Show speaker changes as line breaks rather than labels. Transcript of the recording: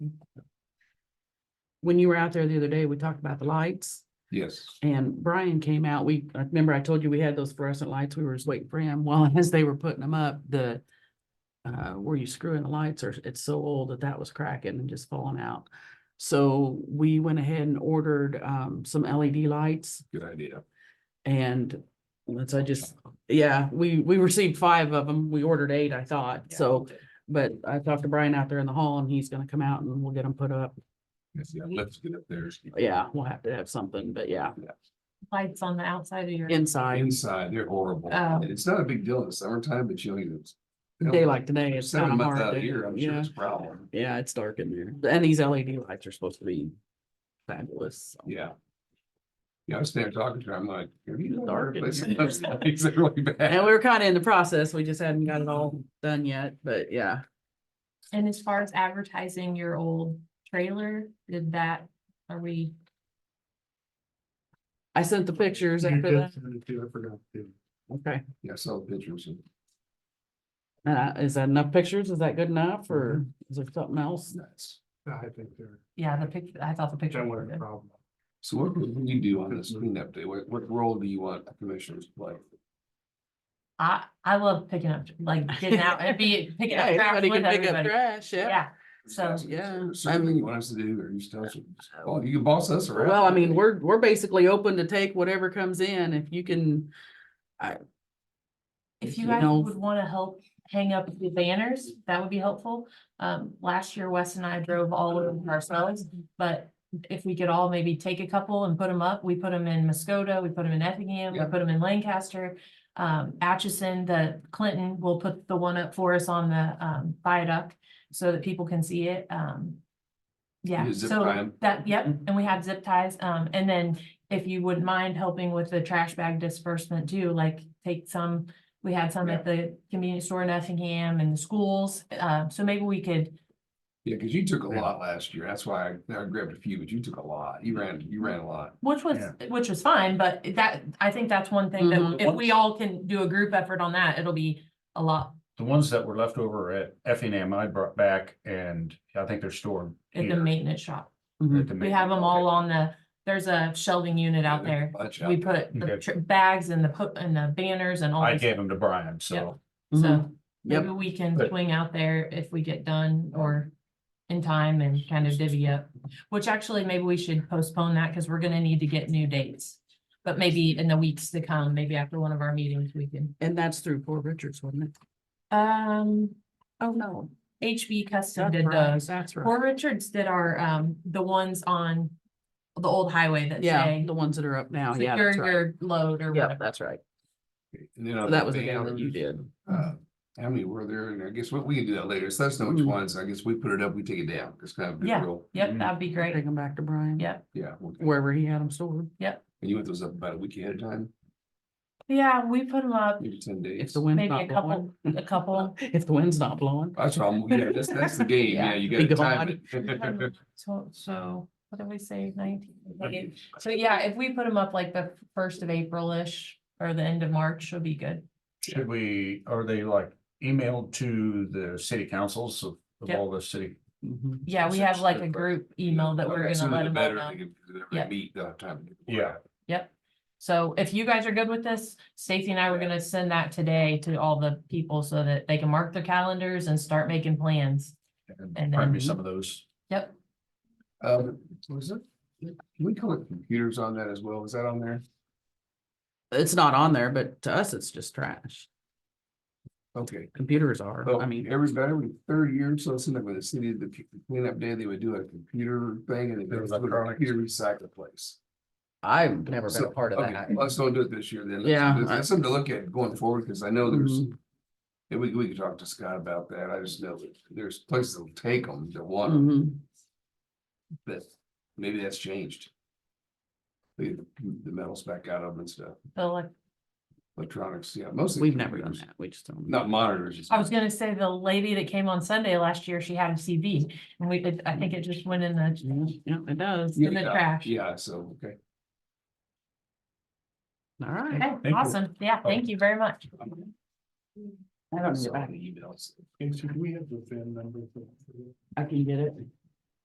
when you were out there the other day, we talked about the lights
Yes.
and Brian came out. We, I remember I told you we had those fluorescent lights. We were just waiting for him. Well, as they were putting them up, the uh, where you screw in the lights or it's so old that that was cracking and just falling out. So we went ahead and ordered um, some LED lights
Good idea.
and let's, I just, yeah, we, we received five of them. We ordered eight, I thought. So, but I talked to Brian out there in the hall and he's gonna come out and we'll get them put up.
Yes, yeah, let's get up there.
Yeah, we'll have to have something, but yeah,
Lights on the outside of your.
inside,
Inside, they're horrible.
Oh.
And It's not a big deal in the summertime, but you know. E
day like today, it's
Seven
kind of
months
hard.
out
to-
of here, I'm sure
Yeah,
it's a problem.
yeah, it's dark in there. And these LED lights are supposed to be fabulous. so.
Yeah. Yeah, I was standing talking to her, I'm like, have you been
Dark
dark
in
places?
here.
It's really
And
bad.
we were kind of in the process. We just hadn't got it all done yet, but yeah.
And as far as advertising your old trailer, did that, are we,
I sent the pictures
You
after
did
that.
send it to her, I forgot to.
Okay.
Yeah, I saw the pictures. and
And I- is that enough pictures? Is that good enough or
Mm-hmm.
is there something
it's
else?
Nuts.
I think they're,
yeah, the picture, I thought the picture.
that
were
was a
good.
problem.
So what would you do on
Mm-hmm.
this cleanup day? What, what role do you want the commissioners to play?
I, I love picking up, like getting out and be picking
Yeah,
up trash
everybody
with
can pick up
everybody.
trash, yeah.
Yeah, so,
Yeah,
Something
I'm-
you want us to do or you just tell us, well, you can boss us around.
Well, I mean, we're, we're basically open to take whatever comes in. If you can,
if
you
you guys
know-
would wanna help hang up the banners, that would be helpful. Um, last year Wes and I drove all over ourselves, but if we could all maybe take a couple and put them up, we put them in Muskota, we put them in Effingham, we
Yeah.
put them in Lancaster. Um, Atchison, the Clinton will put the one up for us on the um viaduct so that people can see it, um. Yeah,
You zip tie 'em.
so that, yep,
Mm-hmm.
and we have zip ties, um, and then if you wouldn't mind helping with the trash bag disbursement too, like take some. We had some at the convenience store in Effingham and the schools, uh, so maybe we could,
Yeah, because you took a lot last year. That's why I- I grabbed a few, but you took a lot. You ran, you ran a lot.
which was,
Yeah.
which was fine, but that, I think that's one thing
Mhm.
that if we all can do a group effort on that, it'll be a lot
The ones that were left over at Effingham, I brought back and I think they're stored.
at the
here
maintenance shop.
Mm-hmm.
at the
We
ma-
have them all on the, there's a shelving unit out
There's a
there.
bunch
We
out
put the
Okay.
tr- bags and the put and the banners and all.
I
this
gave them to Brian, so
Mhm.
Mm-hmm.
So
Yep.
maybe we can
But-
swing out there if we get done or in time and kind of divvy up. Which actually, maybe we should postpone that because we're gonna need to get new dates. But maybe in the weeks to come, maybe after one of our meetings, we can.
and that's through Poor Richards, wasn't it?
Um,
Oh, no.
HB Custom
That's
did
right,
those.
that's
Or
right.
Richards did our, um, the ones on the old highway that
Yeah,
say.
the ones that are up now, yeah,
Secure
that's right.
your load or
Yeah,
whatever.
that's right.
there. And then
So
on
That was the game that you
banners,
did.
uh, How many were there? And I guess what we can do that later. So let us know which
Mm.
ones. I guess we put it up, we take it down. It's kind of. a
Yeah.
real-
Yep, that'd be
Take
great.
them back to Brian.
Yeah.
Yeah. okay.
Wherever he had them stored.
And you want those up about a week ahead of time,
Yeah, we put them up,
maybe ten
If
days.
the wind's
maybe a
not blowing.
couple, a couple.
If the wind's not blowing.
That's what I'm, yeah, that's, that's the game.
Yeah.
Yeah, you gotta
Be
time it.
Um, So, so what did we say, nineteen? Okay. So yeah, if we put them up like the first of April-ish or the end of March, should be good.
should we, are they like emailed to the city councils of of
Yep.
all the city?
Mhm.
Yeah, we have like a group email that
Okay,
we're gonna
sooner
let
the
them all
better,
know.
they can- they
Yeah.
Meet, they'll have time. to-
Yeah.
Yep. So if you guys are good with this, Stacy and I were
Yeah.
gonna send that today to all the people so that they can mark their calendars and start making plans. And
And probably
then-
some of those.
Yep,
Um, was it, can we collect computers on that as well? Is that on there?
It's not on there, but to us, it's just trash.
Okay.
Computers are,
Well,
I mean,
every, about every third year, so it's something with the city, the cleanup day, they would do a computer thing and it
Their
was a
electronics.
computer recycle place.
I've never been
So,
a part of
okay,
that.
Let's don't do it this year then. Let's-
Yeah,
That's
I- Mm-hmm.
that's something to look at going forward, because I know there's, and we, we could talk to Scott about that. I just know that there's places that'll take them, that want 'em,
Mhm.
but maybe that's changed. The, the metals back out of them and stuff,
the elec-
electronics, yeah, mostly.
We've never done
computers.
that. We just don't.
Not monitors. it's-
I was gonna say the lady that came on Sunday last year, she had a CV and we, it- I think it just went in the
Yeah, yeah, it does.
in the
Yeah,
trash.
Yeah, so, okay.
All right.
Okay,
Thank you.
awesome. Yeah,
Oh.
thank you very much.
I don't need it
Saw
back.
the emails.
And should we have the VIN number? for- for-
I can get it.